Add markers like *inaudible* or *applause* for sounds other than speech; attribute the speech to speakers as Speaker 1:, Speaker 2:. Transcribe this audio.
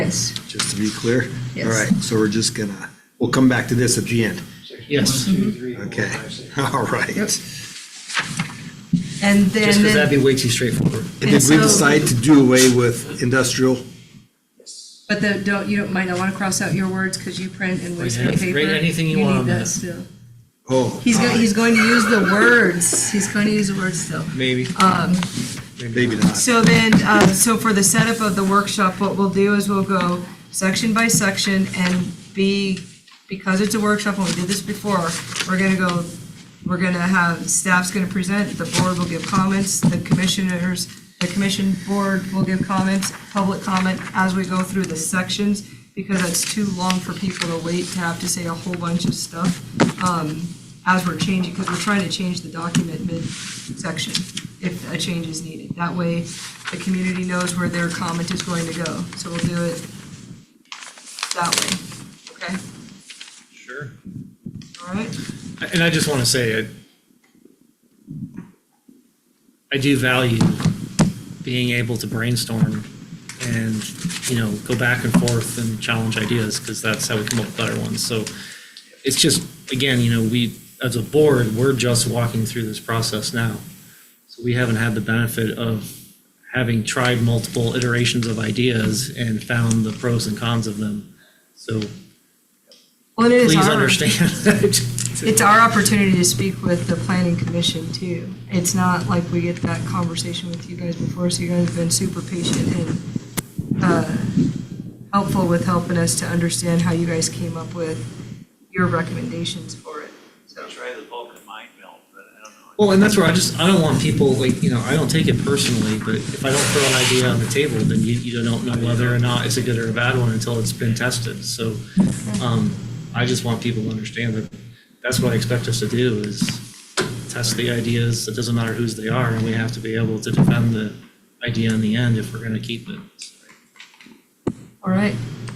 Speaker 1: Yes.
Speaker 2: just to be clear?
Speaker 1: Yes.
Speaker 2: All right, so we're just gonna, we'll come back to this at the end.
Speaker 3: Yes.
Speaker 4: One, two, three, four,
Speaker 2: Okay,
Speaker 4: five, six.
Speaker 2: *laughs* all right.
Speaker 1: Yep.
Speaker 2: And
Speaker 1: And
Speaker 3: Just because
Speaker 1: then,
Speaker 3: that'd be way too straightforward.
Speaker 2: did we
Speaker 1: so-
Speaker 2: decide to do away with industrial?
Speaker 1: but the, don't, you don't, might not want to cross out your words because you print and waste
Speaker 3: Yeah,
Speaker 1: your paper.
Speaker 3: write anything you want on
Speaker 1: need that
Speaker 3: that.
Speaker 1: still.
Speaker 2: Oh.
Speaker 1: He's going,
Speaker 2: God,
Speaker 1: he's going to use the words. He's going to use the words still.
Speaker 3: Maybe.
Speaker 2: Maybe not.
Speaker 1: So then, uh, so for the setup of the workshop, what we'll do is we'll go section by section and be, because it's a workshop and we did this before, we're gonna go, we're gonna have, staff's gonna present, the board will give comments, the commissioners, the commission board will give comments, public comment as we go through the sections, because that's too long for people to wait to have to say a whole bunch of stuff, um, as we're changing, because we're trying to change the document mid-section if a change is needed. That way, the community knows where their comment is going to go. So we'll do it that way, okay?
Speaker 3: Sure.
Speaker 1: All right?
Speaker 3: And I just want to say, I, I do value being able to brainstorm and, you know, go back and forth and challenge ideas because that's how we come up with better ones. So it's just, again, you know, we, as a board, we're just walking through this process now. So we haven't had the benefit of having tried multiple iterations of ideas and found the pros and cons of them. So
Speaker 1: Well, it is
Speaker 3: please
Speaker 1: our,
Speaker 3: understand. *laughs*
Speaker 1: it's our opportunity to speak with the planning commission too. It's not like we get that conversation with you guys before, so you guys have been super patient and uh, helpful with helping us to understand how you guys came up with your recommendations for it. So,
Speaker 4: I tried the Vulcan mind melt, but I don't know.
Speaker 3: Well, and that's where I just, I don't want people, like, you know, I don't take it personally, but if I don't throw an idea on the table, then you, you don't know whether or not it's a good or a bad one until it's been tested, so, um, I just want people to understand that that's what I expect us to do, is test the ideas, it doesn't matter whose they are, and we have to be able to defend the idea in the end if we're gonna keep it.
Speaker 1: all right.